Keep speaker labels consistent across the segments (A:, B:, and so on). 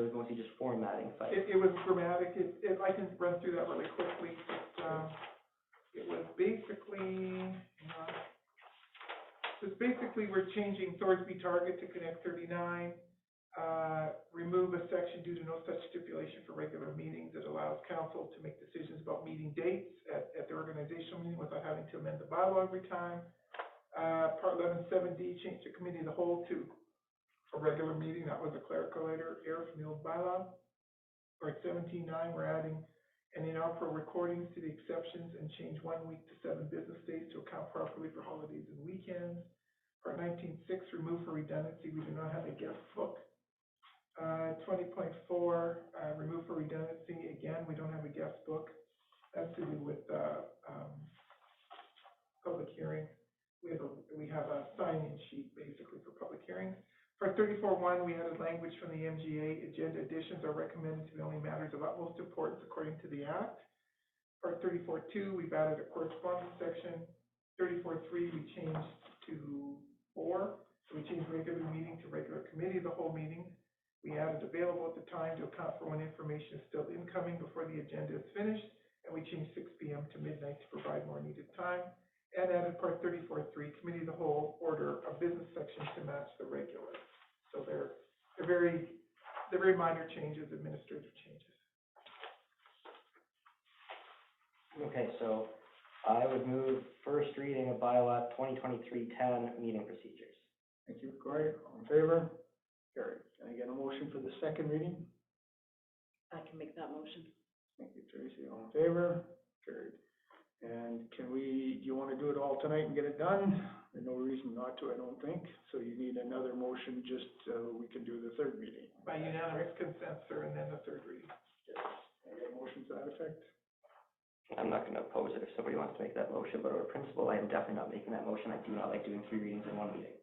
A: and just formatting
B: It,
A: sites.
B: it was dramatic, it, it, I can run through that really quickly, but, um, it was basically, uh, just basically, we're changing Thorsby Target to Connect thirty-nine, uh, remove a section due to no such stipulation for regular meetings that allows council to make decisions about meeting dates at, at the organizational meeting without having to amend the bylaw every time. Uh, part eleven seven D, change the committee of the whole to a regular meeting, that was a clerical error, error from the old bylaw or at seventeen nine, we're adding, and then allow for recordings to the exceptions and change one week to seven business days to account properly for holidays and weekends. Part nineteen six, remove for redundancy, we do not have a guest book. Uh, twenty point four, uh, remove for redundancy, again, we don't have a guest book. That's to do with, uh, um, public hearing. We have a, we have a sign-in sheet basically for public hearings. For thirty-four one, we added language from the MGA, agenda additions are recommended to be only matters of utmost importance according to the act. For thirty-four two, we've added a correspondence section. Thirty-four three, we changed to four, so we changed regular meeting to regular committee of the whole meeting. We added available at the time to account for when information is still incoming before the agenda is finished, and we changed six P M to midnight to provide more needed time. And added part thirty-four three, committee of the whole order of business section to match the regular. So they're, they're very, they're very minor changes, administrative changes.
A: Okay, so I would move first reading of bylaw 2023-10, meeting procedures.
C: Thank you, Corey. All in favor? Carried. Can I get a motion for the second reading?
D: I can make that motion.
C: Thank you, Tracy. All in favor? Carried. And can we, do you want to do it all tonight and get it done? There's no reason not to, I don't think. So you need another motion just so we can do the third meeting.
B: By unanimous consent, sir, and then the third reading.
C: Can I get a motion to that effect?
A: I'm not going to oppose it if somebody wants to make that motion, but over principle, I am definitely not making that motion. I do not like doing three readings in one meeting.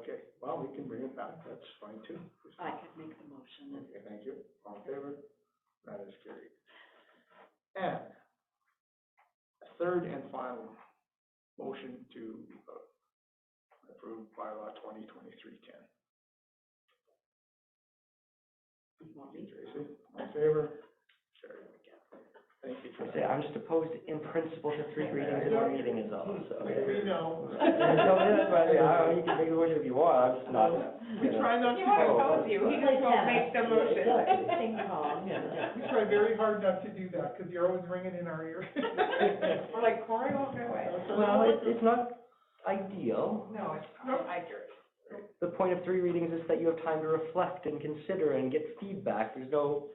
C: Okay, well, we can bring it back. That's fine too.
D: I could make the motion and
C: Okay, thank you. All in favor? That is carried. And third and final motion to uh, approve bylaw twenty twenty-three ten.
D: you want me to.
C: Tracy, all in favor? Carried. Thank you for
A: I
C: that.
A: say, I'm just opposed in principle to three readings in one meeting is
C: Oh,
A: all, so.
B: We know.
A: Tell me that, but I don't- you can make the motion if you want, I'm just not.
B: We try not
E: He won't
B: to,
E: oppose you, he just won't make the motion.
D: Ding dong.
B: we try very hard not to do that, because you're always ringing in our ear.
E: We're like, Cory won't do it.
A: Well, it's, it's not ideal.
E: No, it's, not. I agree.
A: The point of three readings is that you have time to reflect and consider and get feedback. There's no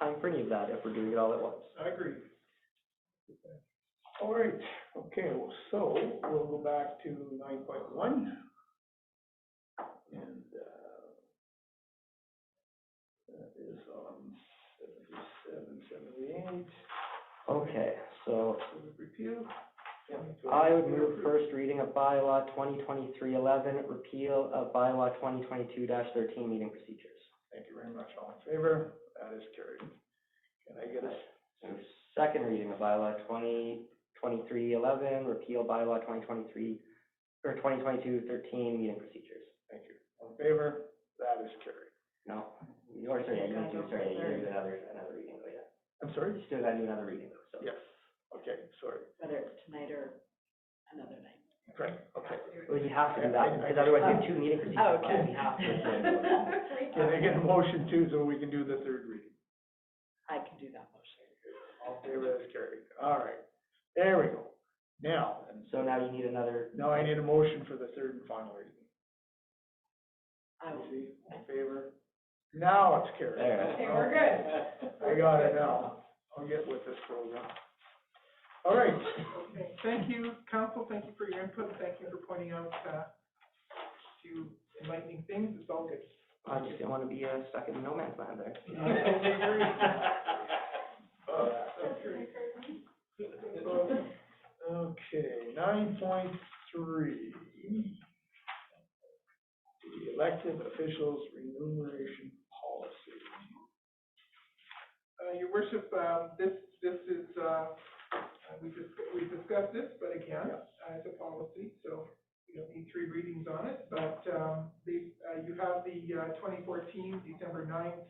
A: time for any of that if we're doing it all at once.
B: I agree.
C: All right, okay, well, so we'll go back to nine point one. And, uh, that is on seventy-seven, seventy-eight.
A: Okay, so
B: It was repealed.
A: I would move first reading of bylaw 2023-11, repeal of bylaw 2022-13, meeting procedures.
C: Thank you very much, all in favor, that is carried. Can I get a,
A: So Second reading of bylaw 2023-11, repeal bylaw 2023, or 2022-13, meeting procedures.
C: thank you, all in favor, that is carried.
A: No, you already, sorry, yeah, you
D: Gotta
A: gotta do,
D: go
A: sorry,
D: for
A: you gotta
D: third.
A: do another, another reading, though, yeah.
C: I'm sorry?
A: You still gotta do another reading, though, so.
C: Yes, okay, sorry,
D: Whether it's tonight or another night.
C: great, okay.
A: Well, you have to do
C: I- I-
A: that, because otherwise you have two meeting procedures.
D: Oh, okay.
A: You have to.
C: Can I get a motion too, so we can do the third reading?
D: I can do that motion.
C: All in favor, that is carried, all right, there we go. Now, and
A: So now you need another,
C: Now I need a motion for the third and final reading.
D: I will.
C: Tracy, in favor? Now it's carried.
A: There.
E: Okay, we're good.
C: I got it now. I'll get with this program. All right,
B: Okay, Thank you, council, thank you for your input, thank you for pointing out, uh, few enlightening things, it's all good. Uh,
A: I just didn't wanna be uh, stuck in no man's land there.
C: okay, nine point three. The elected officials remuneration policy.
B: Uh, your worship, um, this, this is, uh, uh, we just, we discussed this, but again, uh, it's a policy, so you don't need three readings on it, but, um, the, uh, you have the, uh, twenty fourteen, December ninth,